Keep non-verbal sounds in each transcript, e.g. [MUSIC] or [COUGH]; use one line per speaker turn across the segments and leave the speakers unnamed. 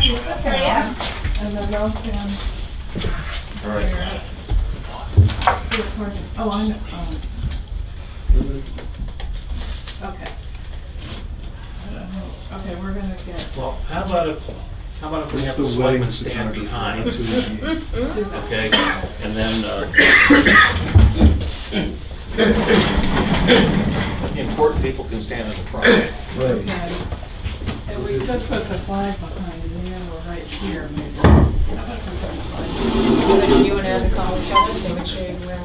you sit there, yeah.
And then I'll say on
All right.
the recording. Oh, I know. um, Okay. Okay, we're gonna get,
Well, how about if, how about if we
It's
have
the
the
wedding
selectmen stand
photographer.
behind?
That's who [LAUGHS] we need.
Okay, and then, uh, important people can stand in the front.
Right.
okay. um, And we could put the flag behind there or right here maybe. How about put the flag?
Like, you and I had to call each other, so which way we're on.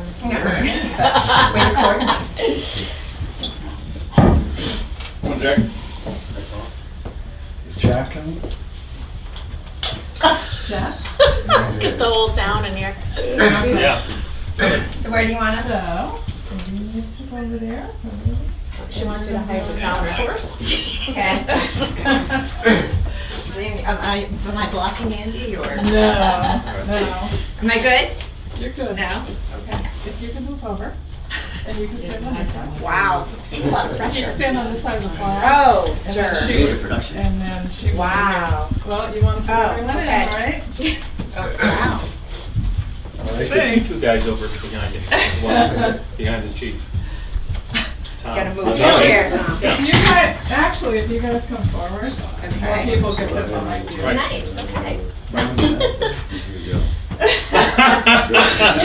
Wait for it.
Is Jack coming?
Jack?
Get the whole town in here.
Yeah.
So where do you want us?
So, we need to go over
[LAUGHS]
there.
She wants you to hire the counter first.
Okay. [LAUGHS] Am I, am I blocking Andy or?
No, no.
Am I good?
You're good.
No?
If you can move over and you can stand on this side.
Wow. This is a lot of
You can
pressure.
stand on this side of the flag.
Oh,
and then
sure.
shoot, And then she.
Wow.
Well, you want to put
Oh,
everyone in,
okay.
right?
Oh, wow.
There's two guys over behind you, one behind the chief. Tom.
Gotta move your
Tommy.
chair, Tom.
If you guys, actually, if you guys come forward, and more
Okay.
people get that behind you.
Right.
Nice, okay.
[LAUGHS]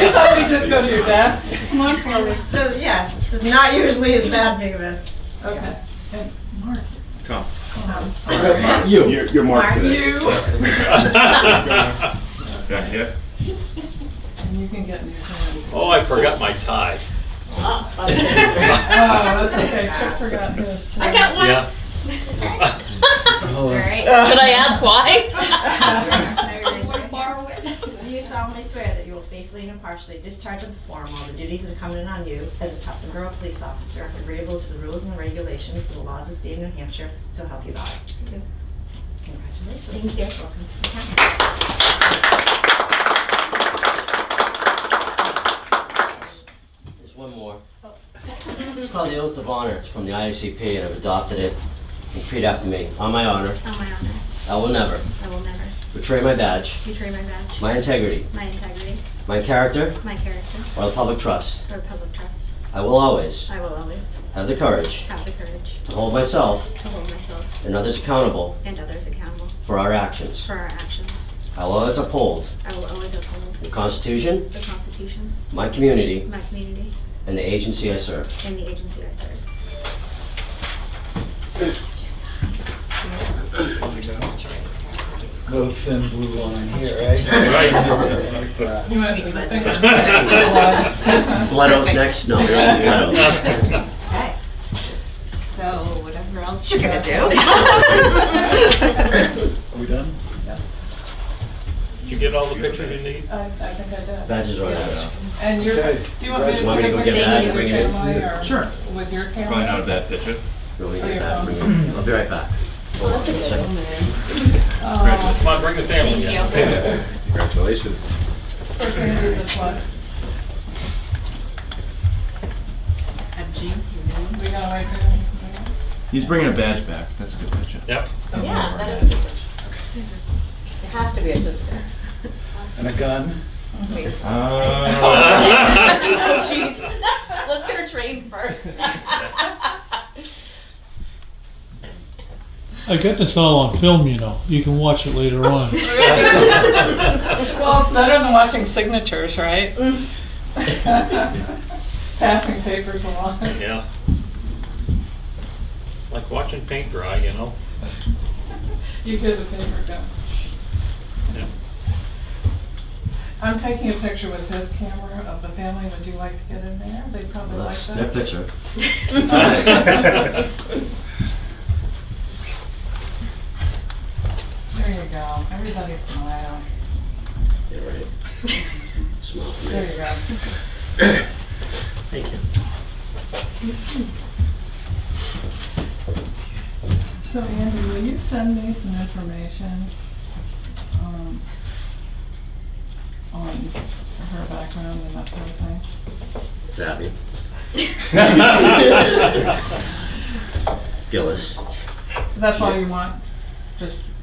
You thought we'd just go to your desk? Come on forward.
[LAUGHS] So, yeah, this is not usually as that big of a.
Okay. And Mark.
Tom.
Oh,
You. You're, you're
Mark.
You, and you can get in your hands. Oh,
[LAUGHS] [LAUGHS] Oh, I forgot my tie.
that's okay, Chip forgot his.
I got one.
Yeah. [LAUGHS]
All right.
[LAUGHS] Did I ask [LAUGHS] why?
Do you solemnly swear that you will faithfully and impartially discharge and perform all the duties incumbent on you as a Tufton Borough Police Officer agreeable to the rules and regulations of the laws of the state of New Hampshire, so help you God? Congratulations. Thank you. Welcome to the town.
There's one more. It's called the Oath of Honor. It's from the IACP and I've adopted it. Repeat after me. On my honor,
On my honor,
I will never
I will never
betray my badge,
betray my badge,
my integrity,
my integrity,
my character,
my character,
or the public trust.
or public trust.
I will always
I will always
have the courage
have the courage
to hold myself
to hold myself
and others accountable
and others accountable
for our actions.
for our actions.
I will always uphold
I will always uphold
the Constitution,
the Constitution,
my community,
my community,
and the agency I serve.
and the agency I serve.
No thin blue line here, right? Like that.
You might- I
[LAUGHS]
think I'm-
Blood oath next? No. blood oath.
[LAUGHS]
Okay. [LAUGHS] So, whatever else you're gonna do.
[LAUGHS]
[LAUGHS]
Are we done?
Did you get all the pictures you need?
I, I think I did.
Badges are uh, on there.
And you're, do
Okay.
you want me to?
You want
me to go
take
get
my
a
picture
bag and
with
bring it in?
my camera or
Sure.
With your camera?
bad picture.
Go and
Oh,
get
you're
that. Bring
wrong.
it. I'll be right back. Hold on one second.
Oh,
Come on, bring the family in.
Thank you.
Congratulations.
first thing to do this one.
I'm Jean,
We gotta wait for them to come in.
He's bringing a badge back. That's a good picture.
Yep.
Yeah, that is a good one. It has to be a sister.
And a gun?
Oh, jeez. Let's get her trained first.
I got this all on film, you know. You can watch it later on.
Well, it's better than watching signatures, right? [LAUGHS] Passing papers along.
Yeah. Like watching paint dry, you know?
You did the paper down.
Yeah.
I'm taking a picture with his camera of the family. Would you like to get in there? They'd probably like
That's their
that.
picture.
There you go. Everybody smile.
Yeah, right.
[LAUGHS]
Small for
There you
me.
go.
Thank you.
So Andy, will you send me some information um, on her background and that sort of thing?
It's Abby. Gillis.
[LAUGHS]
[LAUGHS] That's all you want? Just